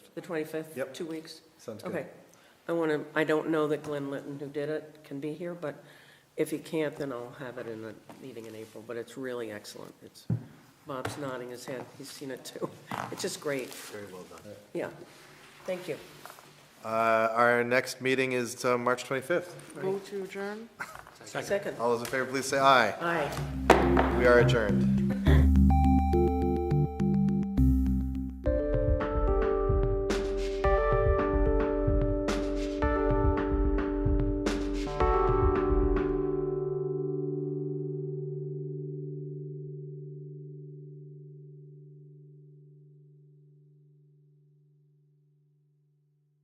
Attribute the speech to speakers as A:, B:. A: The 25th?
B: Yep.
A: Two weeks?
B: Sounds good.
A: Okay. I want to, I don't know that Glenn Litton, who did it, can be here, but if he can't, then I'll have it in the meeting in April, but it's really excellent. It's, Bob's nodding his head, he's seen it too. It's just great.
C: Very well done.
A: Yeah. Thank you.
B: Uh, Our next meeting is uh, March 25th.
D: Move to adjourn?
A: Second.
B: All those in favor, please say aye.
A: Aye.
B: We are adjourned.